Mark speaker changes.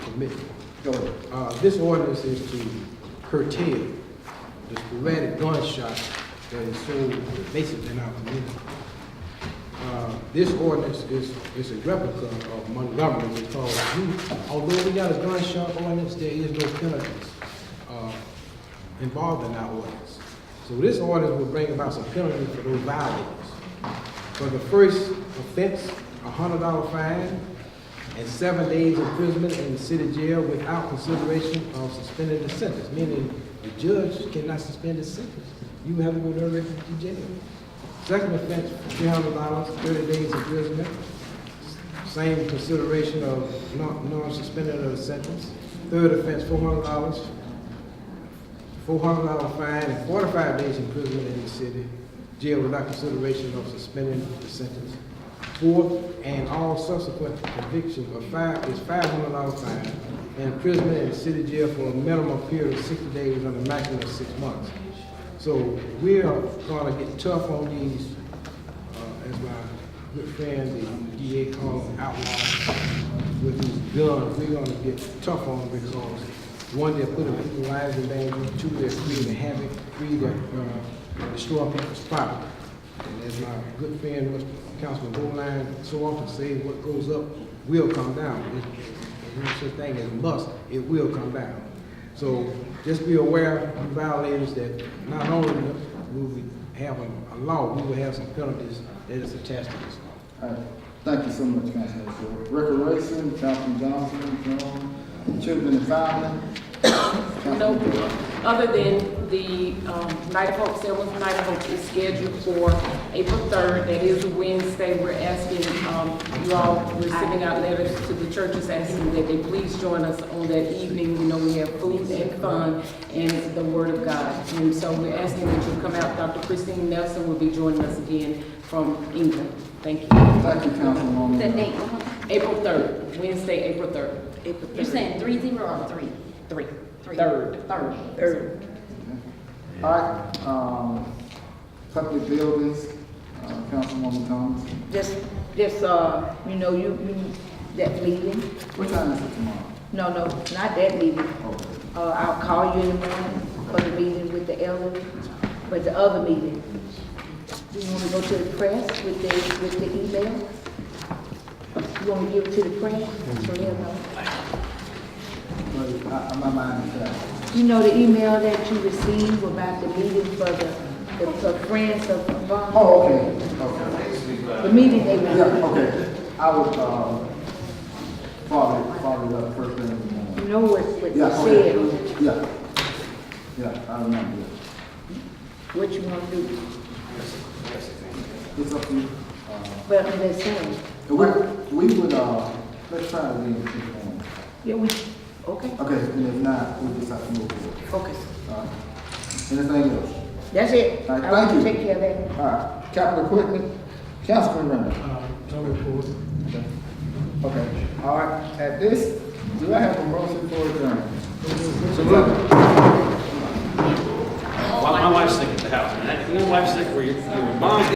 Speaker 1: permit. So, uh, this ordinance is to curtail the sporadic gunshots that is so pervasive in our community. Uh, This ordinance is, is a replica of Montgomery because we, although we got a gun shop ordinance, there is no penalties uh, involved in our ordinance. So this ordinance will bring about some penalties for those violators. For the first offense, a hundred dollar fine and seven days imprisonment in the city jail without consideration of suspending the sentence, meaning the judge cannot suspend the sentence. You have to go to refugee jail. Second offense, three hundred dollars, thirty days imprisonment. Same consideration of non- non-suspended of the sentence. Third offense, four hundred dollars, four hundred dollar fine, and forty-five days imprisonment in the city jail without consideration of suspending the sentence. Fourth, and all subsequent conviction of five is five hundred dollar fine and imprisonment in the city jail for a minimum period of sixty days and a maximum of six months. So we are gonna get tough on these, uh, as my good friend, the DA calls them outlaws with these guns. We're gonna get tough on them because one, they're putting people's lives in danger, two, they're creating havoc, three, they're, uh, destroying people's property. And as my good friend, Mr. Councilman Bowline, so often says, what goes up will come down. There's no such thing as must, it will come down. So just be aware, you violators, that not only will we have a a law, we will have some penalties that is attached to this law.
Speaker 2: All right. Thank you so much, Councilman Short. Recreation, Councilman Johnson, Jones, Children and Family.
Speaker 3: No,
Speaker 2: Councilman Short.
Speaker 3: other than the um, Night of Hope, Selma's Night of Hope is scheduled for April 3rd. That is a Wednesday. We're asking um, you all, we're sending out letters to the churches asking that they please join us on that evening. You know, we have food and fun and the Word of God. And so we're asking that you come out. Dr. Christine Nelson will be joining us again from England. Thank you.
Speaker 2: Thank you, Councilwoman.
Speaker 4: The date,
Speaker 3: April 3rd, Wednesday, April 3rd. April 3rd.
Speaker 4: you're saying three zero or three?
Speaker 3: Three.
Speaker 4: Three.
Speaker 3: Third.
Speaker 4: Third.
Speaker 3: Third.
Speaker 2: All right, um, public buildings, uh, Councilwoman Thomas.
Speaker 5: Just, just, uh, you know, you, you, that meeting,
Speaker 2: What time is it tomorrow?
Speaker 5: no, no, not that meeting.
Speaker 2: Oh,
Speaker 5: Uh, I'll call you in the morning for the meeting with the elderly, but the other meeting. Do you want to go to the press with the, with the email? You want to give it to the
Speaker 2: Mm-hmm.
Speaker 5: press, so they'll know?
Speaker 2: but I, Uh, my mind is out.
Speaker 5: You know the email that you received about the meeting for the, the, for friends of Vaughn?
Speaker 2: Oh, okay, okay.
Speaker 5: The meeting they
Speaker 2: Yeah,
Speaker 5: were,
Speaker 2: okay. I would, um, follow it, follow it up first thing in the morning.
Speaker 5: you know what, what
Speaker 2: Yeah,
Speaker 5: you
Speaker 2: okay.
Speaker 5: said,
Speaker 2: Yeah. Yeah, I remember that.
Speaker 5: what you want to do.
Speaker 2: It's up to you. Uh,
Speaker 5: But I'm just saying,
Speaker 2: We, we would, uh, let's try to leave it informal.
Speaker 5: yeah, we, okay,
Speaker 2: Okay, and if not, we just have to move forward.
Speaker 5: okay.
Speaker 2: All right. Anything else?
Speaker 5: That's it.
Speaker 2: All right,
Speaker 5: I want
Speaker 2: thank
Speaker 5: to
Speaker 2: you.
Speaker 5: take care of that.
Speaker 2: All right, capital equipment, Councilman Renner.
Speaker 1: Uh, no report.
Speaker 2: Okay, all right, at this, do I have a motion for adjournment?
Speaker 6: My my wife's sick at the house, man. Your wife's sick where your, your mom